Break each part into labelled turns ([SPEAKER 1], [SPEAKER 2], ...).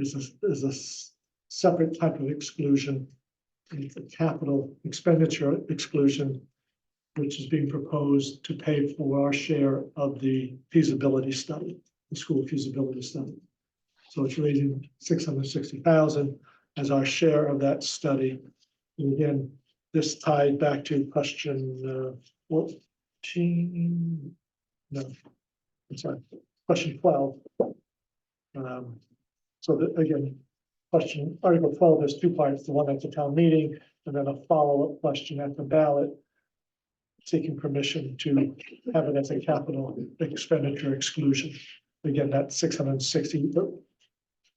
[SPEAKER 1] is a, is a s- separate type of exclusion. It's a capital expenditure exclusion, which is being proposed to pay for our share of the feasibility study, the school feasibility study. So it's raising six hundred sixty thousand as our share of that study. And again, this tied back to question uh, fourteen. No, I'm sorry, question twelve. Um, so that, again, question, Article twelve has two parts, the one at the town meeting, and then a follow-up question at the ballot. Seeking permission to have it as a capital expenditure exclusion. Again, that six hundred and sixty,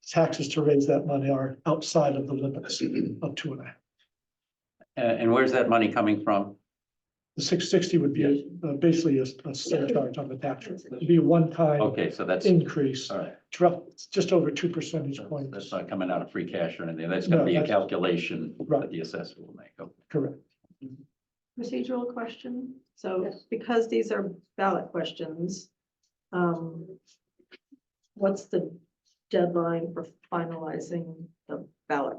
[SPEAKER 1] taxes to raise that money are outside of the limits of two and a half.
[SPEAKER 2] And, Uh, and where's that money coming from?
[SPEAKER 1] The six sixty would be a- uh, basically a a surcharge on the tax rate, it'd be a one-time
[SPEAKER 2] Okay, so that's,
[SPEAKER 1] increase,
[SPEAKER 2] all right,
[SPEAKER 1] it's rough- it's just over two percentage
[SPEAKER 2] that's
[SPEAKER 1] points,
[SPEAKER 2] not coming out of free cash or anything. That's gonna
[SPEAKER 1] No,
[SPEAKER 2] be a
[SPEAKER 1] that's-
[SPEAKER 2] calculation
[SPEAKER 1] Right.
[SPEAKER 2] that the assessor will make. Okay.
[SPEAKER 1] correct?
[SPEAKER 3] procedural question. So because these are ballot questions, um, what's the deadline for finalizing the ballot?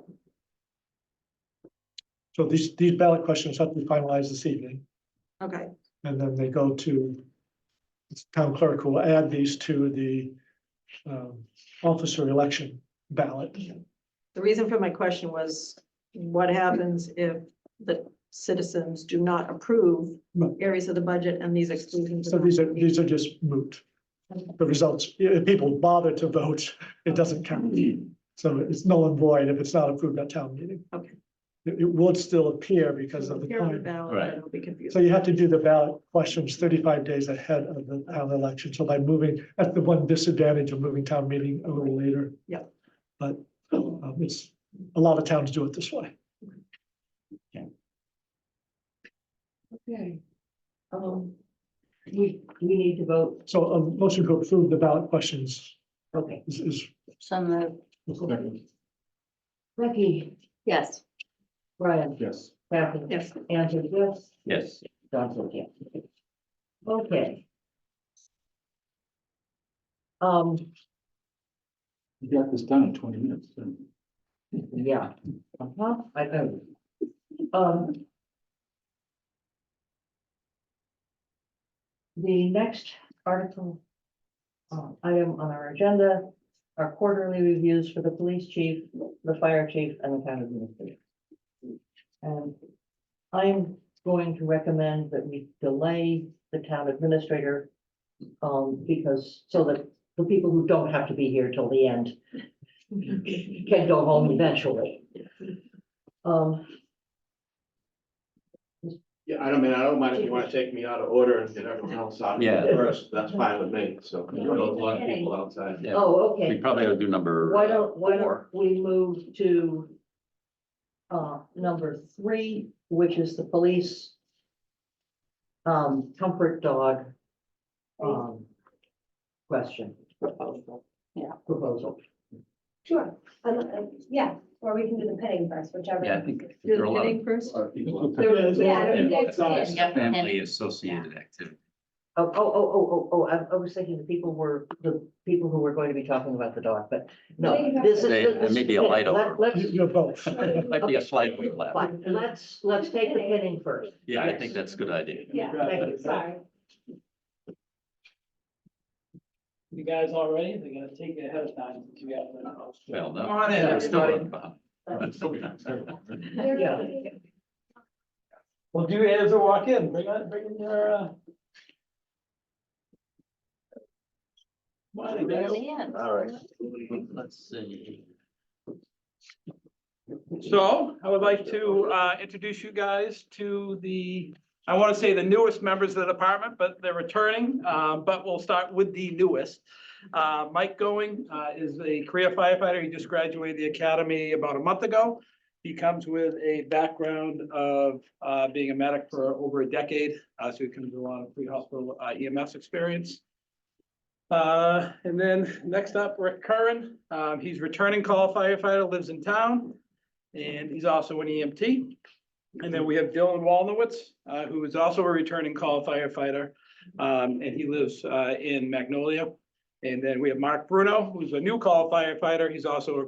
[SPEAKER 1] So these, these ballot questions have to be finalized this evening.
[SPEAKER 3] Okay,
[SPEAKER 1] And then they go to it's town clerk who will add these to the um, officer election ballot.
[SPEAKER 3] the reason for my question was what happens if the citizens do not approve
[SPEAKER 1] Right.
[SPEAKER 3] areas of the budget and these exclusions?
[SPEAKER 1] So these are, these are just moot. The results, if people bother to vote, it doesn't count.
[SPEAKER 4] Mm-hmm.
[SPEAKER 1] So it's null and void if it's not approved at town meeting.
[SPEAKER 3] Okay.
[SPEAKER 1] It, it would still appear because of the
[SPEAKER 3] Here on the
[SPEAKER 1] time.
[SPEAKER 3] ballot,
[SPEAKER 2] Right.
[SPEAKER 3] it'll be
[SPEAKER 1] So
[SPEAKER 3] confusing.
[SPEAKER 1] you have to do the ballot questions thirty-five days ahead of the town election, so by moving, that's the one disadvantage of moving town meeting a little later.
[SPEAKER 3] Yeah.
[SPEAKER 1] But um, it's, a lot of towns do it this way.
[SPEAKER 4] Okay. Um, we, we need to vote,
[SPEAKER 1] So a motion to approve the ballot questions
[SPEAKER 4] okay,
[SPEAKER 1] is, is.
[SPEAKER 4] some of, Becky,
[SPEAKER 5] Yes,
[SPEAKER 4] Brian,
[SPEAKER 1] Yes.
[SPEAKER 4] Kathy,
[SPEAKER 3] Yes,
[SPEAKER 4] Andrew, yes,
[SPEAKER 2] Yes,
[SPEAKER 4] John, so yes. Okay. Um,
[SPEAKER 6] You got this done in twenty minutes. didn't you?
[SPEAKER 4] yeah, uh-huh, I know. Um. The next article. uh, item on our agenda are quarterly reviews for the police chief, the fire chief, and the town administrator. And I'm going to recommend that we delay the town administrator. Um, because, so that the people who don't have to be here till the end can go home eventually. Um,
[SPEAKER 7] Yeah, I don't mean, I don't mind if you wanna take me out of order and get everyone else out
[SPEAKER 2] Yeah.
[SPEAKER 7] first, that's fine with me, so. There's a lot of people outside.
[SPEAKER 2] yeah.
[SPEAKER 4] oh,
[SPEAKER 2] We
[SPEAKER 4] okay,
[SPEAKER 2] probably ought to do number.
[SPEAKER 4] why don't, why
[SPEAKER 2] four.
[SPEAKER 4] don't we move to uh, number three, which is the police um, comfort dog um, question,
[SPEAKER 5] proposal.
[SPEAKER 4] proposal.
[SPEAKER 5] Sure, Um, uh, yeah, or we can do the petting first, whichever.
[SPEAKER 2] Yeah, I think
[SPEAKER 3] do
[SPEAKER 2] there are a
[SPEAKER 3] the
[SPEAKER 2] lot of
[SPEAKER 3] bidding first.
[SPEAKER 6] A lot of people out there.
[SPEAKER 5] Yeah, I
[SPEAKER 1] Yeah,
[SPEAKER 5] don't think that's it.
[SPEAKER 2] family associated activity.
[SPEAKER 4] Oh, oh, oh, oh, oh, oh, I, I was thinking the people were, the people who were going to be talking about the dog, but no, this is.
[SPEAKER 2] They- there may be a
[SPEAKER 4] this-
[SPEAKER 2] light
[SPEAKER 4] let-
[SPEAKER 2] over.
[SPEAKER 4] Let's,
[SPEAKER 1] You- You're both.
[SPEAKER 2] Might be a slight overlap.
[SPEAKER 4] Fine, let's, let's take the pinning first.
[SPEAKER 2] Yeah, I think that's a good idea.
[SPEAKER 5] Yeah,
[SPEAKER 4] Thank you.
[SPEAKER 5] sorry.
[SPEAKER 8] You guys all ready? They're gonna take it ahead of time to be out there.
[SPEAKER 2] Well, no.
[SPEAKER 8] Come on in,
[SPEAKER 2] We're still
[SPEAKER 8] everybody.
[SPEAKER 2] behind.
[SPEAKER 4] Yeah.
[SPEAKER 8] Well, do as a walk in, bring on, bring in your, uh. Morning, guys.
[SPEAKER 7] All right.
[SPEAKER 2] Let's see.
[SPEAKER 8] So I would like to uh, introduce you guys to the, I want to say the newest members of the department, but they're returning. uh, But we'll start with the newest. Uh, Mike Going uh, is a career firefighter. He just graduated the academy about a month ago. He comes with a background of uh, being a medic for over a decade. uh, So he comes with a lot of pre-hospital uh, EMS experience. Uh, And then next up, Rick Curran. Um, He's returning call firefighter, lives in town. And he's also an EMT. And then we have Dylan Walnowitz, uh, who is also a returning call firefighter. Um, and he lives, uh, in Magnolia. And then we have Mark Bruno, who's a new call firefighter. He's also a